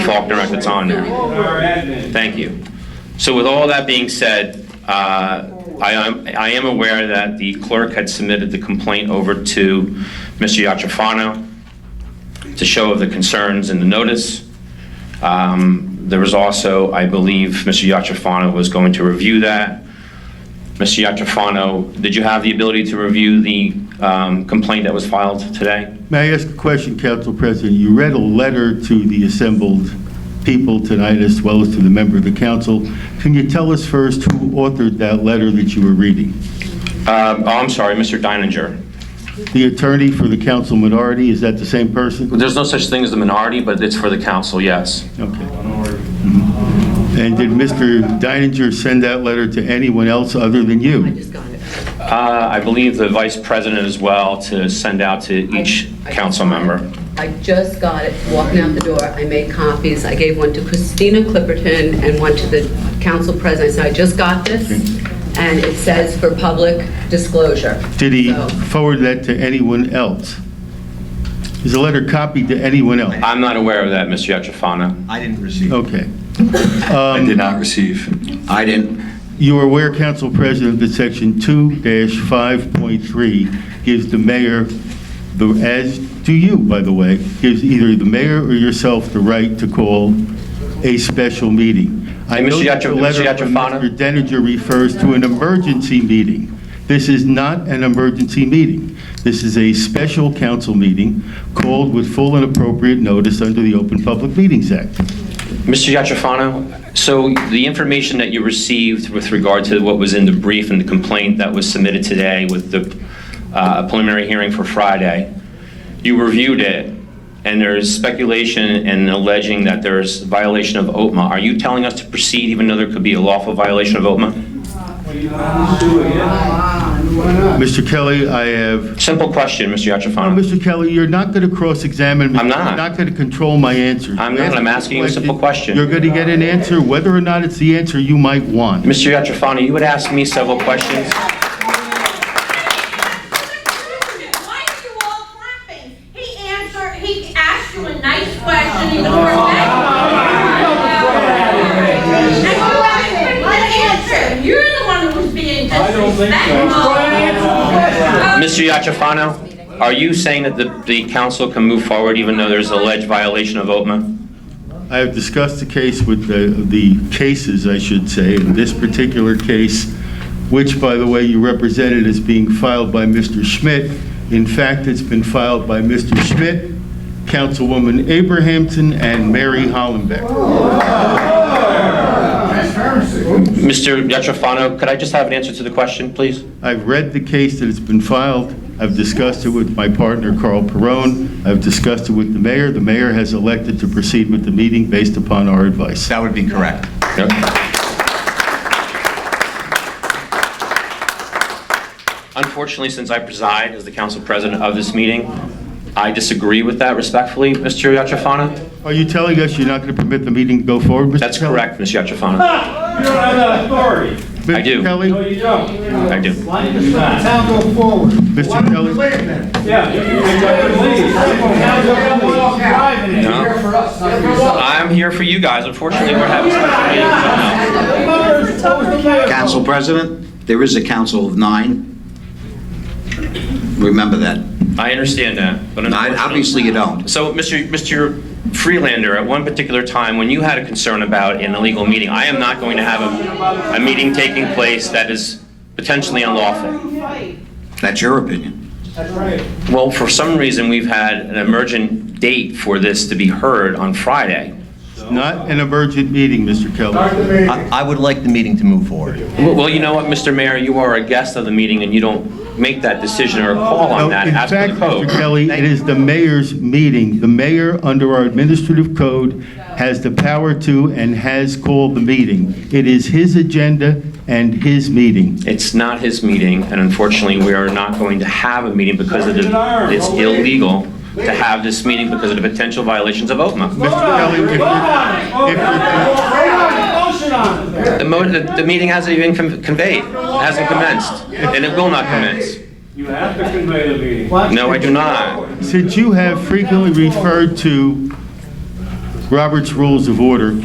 Talk Direct, it's on there. Our admin. Thank you. So with all that being said, uh, I am- I am aware that the clerk had submitted the complaint over to Mr. Yachafano to show the concerns in the notice. Um, There was also, I believe, Mr. Yachafano was going to review that. Mr. Yachafano, did you have the ability to review the um, complaint that was filed today? May I ask a question, Council President? You read a letter to the assembled people tonight as well as to the member of the council. Can you tell us first who authored that letter that you were reading? Um, Oh, I'm sorry, Mr. Deininger. The attorney for the council minority, is that the same person? There's no such thing as the minority, but it's for the council, yes. Okay. Mm-hmm. And did Mr. Deininger send that letter to anyone else other than you? just got it. Uh, I believe the vice president as well to send out to each I- I- council member. I just got it, walking out the door, I made copies, I gave one to Christina Clipperton and one to the council president, I said, I just got this, and it says for public disclosure. Did he So- forward that to anyone else? Is the letter copied to anyone else? I'm not aware of that, Mr. Yetrafano. I didn't receive. Okay. Um, I did not receive. I didn't. You are aware, Council President, that Section 2-5.3 gives the mayor, the as do you, by the way, gives either the mayor or yourself the right to call a special meeting. I Hey, Mr. know that Yatra- the letter Mr. from Yatrafano? Mr. Denninger refers to an emergency meeting. This is not an emergency meeting. This is a special council meeting called with full and appropriate notice under the Open Public Meetings Act. Mr. Yetrafano, so the information that you received with regard to what was in the brief and the complaint that was submitted today with the uh, preliminary hearing for Friday, you reviewed it, and there's speculation and alleging that there's violation of OTMA. Are you telling us to proceed even though there could be a lawful violation of OTMA? Mr. Kelly, I have Simple question, Mr. Yetrafano. No, Mr. Kelly, you're not going to cross-examine me. I'm not. You're not going to control my answer. I'm not. I'm asking you a simple question. You're going to get an answer, whether or not it's the answer you might want. Mr. Yatrafani, you would ask me several questions. Why are you all clapping? He answered, he asked you a nice question, he was professional. And you haven't answer. You're the one who's being disrespectful. Mr. Yatrafano, are you saying that the, the council can move forward even though there's alleged violation of OTMA? I have discussed the case with the, the cases, I should say, in this particular case, which, by the way, you represented as being filed by Mr. Schmidt. In fact, it's been filed by Mr. Schmidt, Councilwoman Abrahamson, and Mary Hollenbeck. Mr. Yatrafano, could I just have an answer to the question, please? I've read the case that has been filed. I've discussed it with my partner, Carl Perone. I've discussed it with the mayor. The mayor has elected to proceed with the meeting based upon our advice. That would be correct. Unfortunately, since I preside as the council president of this meeting, I disagree with that respectfully, Mr. Yatrafano. Are you telling us you're not going to permit the meeting to go forward, Mr. Kelly? That's correct, Mr. Yatrafano. You don't have that authority. I do. Mr. No, Kelly? you don't. I do. It's not. Now go forward. Mr. Kelly? Yeah. you can pick up and leave. Now go and walk out. No. Here for us, not for yourself. I'm here for you guys. Unfortunately, we're having some... Council President, there is a council of nine. Remember that. I understand that, but I- Obviously, you don't. So, Mr. Mr. Freelander, at one particular time, when you had a concern about an illegal meeting, I am not going to have a, a meeting taking place that is potentially unlawful. That's your opinion. That's right. Well, for some reason, we've had an emergent date for this to be heard on Friday. Not an emergent meeting, Mr. Kelly. I I would like the meeting to move forward. Well, well, you know what, Mr. Mayor, you are a guest of the meeting, and you don't make that decision or call on that as per the In code. fact, Mr. Kelly, it is the mayor's meeting. The mayor, under our administrative code, has the power to and has called the meeting. It is his agenda and his meeting. It's not his meeting, and unfortunately, we are not going to have a meeting because of the, it's illegal to have this meeting because of the potential violations of OPMA. Mr. Kelly, if Vote on it. Vote on it. if you're- Vote on it. Motion on it. The mo, the, the meeting hasn't even con- conveyed, hasn't commenced, and it will not commence. You have to convey the meeting. No, I do not. Since you have frequently referred to Robert's Rules of Order